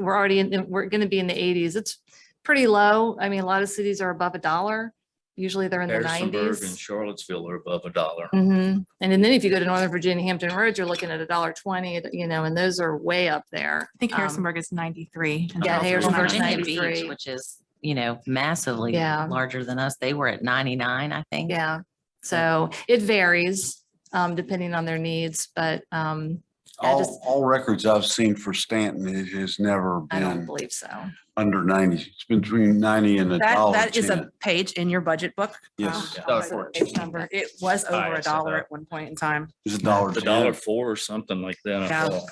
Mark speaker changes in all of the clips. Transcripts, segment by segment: Speaker 1: we're already in, we're going to be in the eighties. It's pretty low. I mean, a lot of cities are above a dollar. Usually they're in the
Speaker 2: Harrisonburg and
Speaker 1: nineties.
Speaker 2: Charlottesville are above a dollar.
Speaker 3: Mm-hmm.
Speaker 1: Mhm. And then if you go to Northern Virginia, Hampton Roads, you're looking at a dollar twenty, you know, and those are way up there.
Speaker 3: I think
Speaker 1: Um,
Speaker 3: Harrisonburg is ninety-three. and
Speaker 1: yeah,
Speaker 3: Charleston
Speaker 1: Harrisonburg's
Speaker 3: is
Speaker 4: Well, Virginia
Speaker 3: 99.
Speaker 4: Beach,
Speaker 1: 93.
Speaker 4: which is, you know, massively
Speaker 1: Yeah.
Speaker 4: larger than us. They were at ninety-nine, I think.
Speaker 1: Um, Yeah, so it varies, um, depending on their needs, but, um, I just-
Speaker 5: All, all records I've seen for Stanton, it has never
Speaker 1: I don't
Speaker 5: been
Speaker 1: believe so.
Speaker 5: under ninety. It's been between ninety and a
Speaker 3: That,
Speaker 2: Oh,
Speaker 5: dollar.
Speaker 3: that is
Speaker 5: ten.
Speaker 3: a page in your budget book.
Speaker 5: Yes,
Speaker 3: Um,
Speaker 2: Dollar
Speaker 3: I forget the
Speaker 2: fourteen.
Speaker 3: page number. It was over a
Speaker 2: Highest, I
Speaker 3: dollar
Speaker 2: thought.
Speaker 3: at one point in time.
Speaker 5: it's a dollar.
Speaker 2: A
Speaker 5: ten.
Speaker 2: dollar four or something like that. I
Speaker 3: Yeah.
Speaker 2: thought.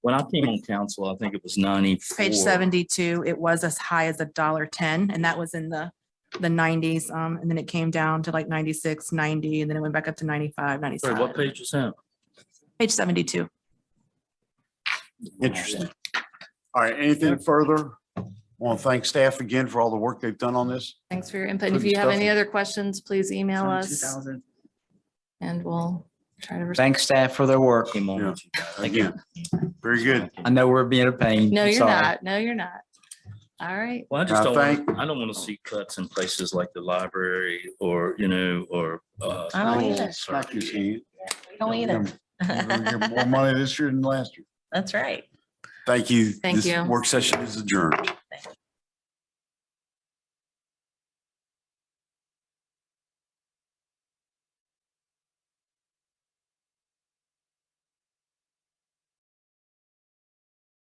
Speaker 2: When I came on council, I think it was ninety-four.
Speaker 3: Page seventy-two, it was as high as a dollar ten, and that was in the, the nineties. Um, and then it came down to like 96, 90, and then it went back up to 95,
Speaker 2: Sorry,
Speaker 3: 97.
Speaker 2: what page was that?
Speaker 3: Page seventy-two.
Speaker 5: Interesting. All right, anything further? Want to thank staff again for all the work they've done on this.
Speaker 1: Thanks for your input. If
Speaker 5: Good
Speaker 1: you have
Speaker 5: stuff.
Speaker 1: any other questions, please email us and we'll try to. respond.
Speaker 6: Thanks staff for their work.
Speaker 2: Came on.
Speaker 5: Yeah.
Speaker 2: with you guys.
Speaker 5: Again, very good.
Speaker 6: I know we're being a pain.
Speaker 1: No,
Speaker 6: I'm
Speaker 1: you're
Speaker 6: sorry.
Speaker 1: not. No, you're not. All right.
Speaker 2: Well, I just
Speaker 5: I
Speaker 2: don't, want-
Speaker 5: think-
Speaker 2: I don't want to see cuts in places like the library or, you know, or. uh,
Speaker 4: I don't
Speaker 2: schools
Speaker 4: either.
Speaker 2: or-
Speaker 5: Smack his hand.
Speaker 4: Don't eat it.
Speaker 5: You're gonna get More money this year than last year.
Speaker 4: That's right.
Speaker 5: Thank you.
Speaker 1: Thank
Speaker 5: This
Speaker 1: you.
Speaker 5: Work session is adjourned.